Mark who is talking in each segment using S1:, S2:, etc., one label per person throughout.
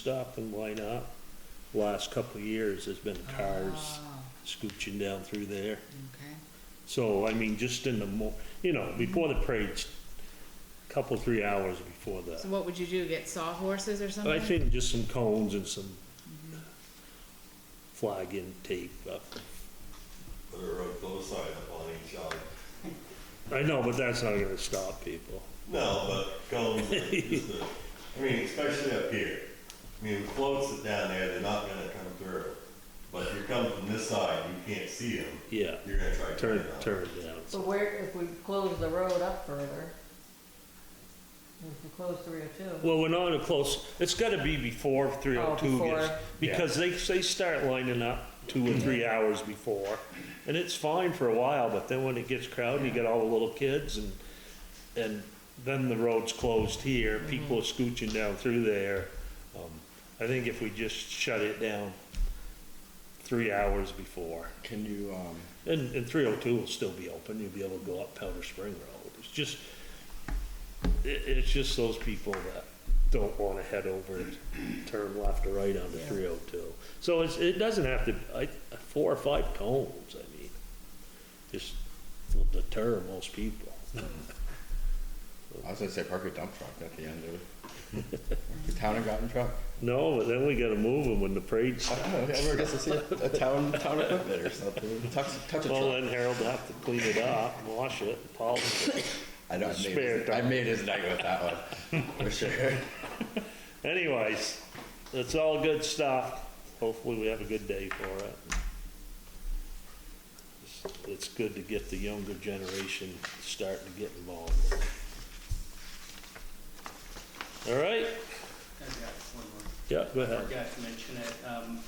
S1: stop and wind up, last couple of years, there's been cars
S2: Oh,
S1: scooching down through there.
S2: Okay.
S1: So, I mean, just in the mo, you know, before the parade, couple, three hours before
S2: So
S1: the,
S2: what would you do, get sawhorses or something?
S1: I think just some cones and some flagging tape up.
S3: Put a road closed sign up on each side.
S1: I know, but that's not gonna stop people.
S3: No, but cones, are just a- I mean, especially up here. I mean, floats that down there, they're not gonna come through. But if you come from this side, you can't see them,
S1: Yeah,
S3: you're gonna try to turn
S1: turn,
S3: it on.
S1: turn down.
S4: So where, if we close the road up further, if we close three oh two,
S1: Well, we're not a close, it's gotta be before three oh two gets,
S4: before.
S1: because they, they start lining up two or three hours before. And it's fine for a while, but then when it gets crowded, you get all the little kids and, and then the road's closed here, people are scooching down through there. Um, I think if we just shut it down three hours before,
S5: Can you, um,
S1: and, and three oh two will still be open, you'll be able to go up Powder Spring Road. It's just, it, it's just those people that don't wanna head over and turn left or right onto three oh two. So it's, it doesn't have to, I, four or five cones, I mean, just will deter most people.
S5: I was gonna say park your dump truck at the end of it. The town and garden truck?
S1: No, but then we gotta move them when the parade
S5: I
S1: starts.
S5: don't know, if ever gets to see a a town, town equipment or something, touch, touch a
S1: Well,
S5: truck.
S1: then Harold will have to clean it up, wash it, polish it.
S5: I know, I made,
S1: spare
S5: his- I
S1: dump.
S5: made his night with that one, for sure.
S1: Anyways, it's all good stuff. Hopefully we have a good day for it. It's- It's good to get the younger generation starting to get involved. All right?
S6: I've got one more.
S1: Yeah, go
S6: I
S1: ahead.
S6: forgot to mention it. Um,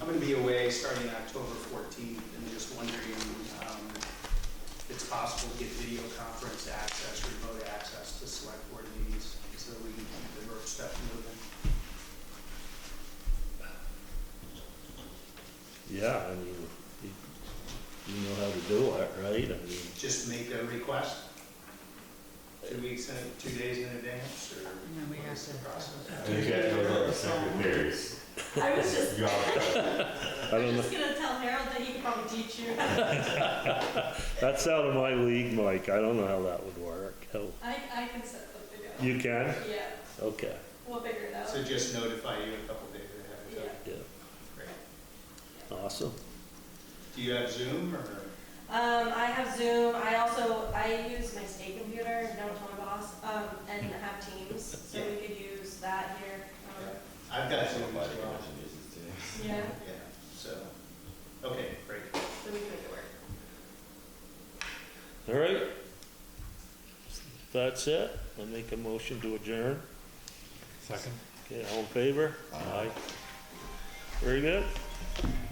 S6: I'm going to be away starting October 14th, and just wondering um, if it's possible to get video conference access, remote access to select board meetings, so that we can keep the work stuff moving.
S1: Yeah, I mean, you you know how to do it, right? I mean,
S6: Just make a request? Two weeks, in two days in advance, or
S2: No, we
S6: what is
S2: have
S6: the
S2: to-
S6: process?
S3: And you guys are like secondaries.
S7: I was just,
S3: You are-
S1: I
S7: I
S1: don't
S7: was
S1: know,
S7: just gonna tell Harold that he could probably teach you. I,
S1: that's out of my league, Mike. I don't know how that would work. How-
S7: I can set something up.
S1: You can?
S7: Yeah,
S1: Okay,
S7: we'll figure it out.
S6: So just notify you a couple days ahead of
S7: Yeah.
S6: time.
S1: yeah,
S6: Great.
S1: awesome.
S6: Do you have Zoom,
S2: Uh,
S6: or?
S7: Um, I have Zoom, I also, I use my state computer, don't tell my boss, um, and have Teams, so we could use that here. um,
S6: I've got Zoom as
S5: Nobody
S6: well.
S5: mentioned this, too.
S7: Yeah,
S6: Yeah, so, okay, great.
S7: so we can make it work.
S1: All right. That's it. I make a motion to adjourn. Second. Okay, all in favor? Aye. Very good.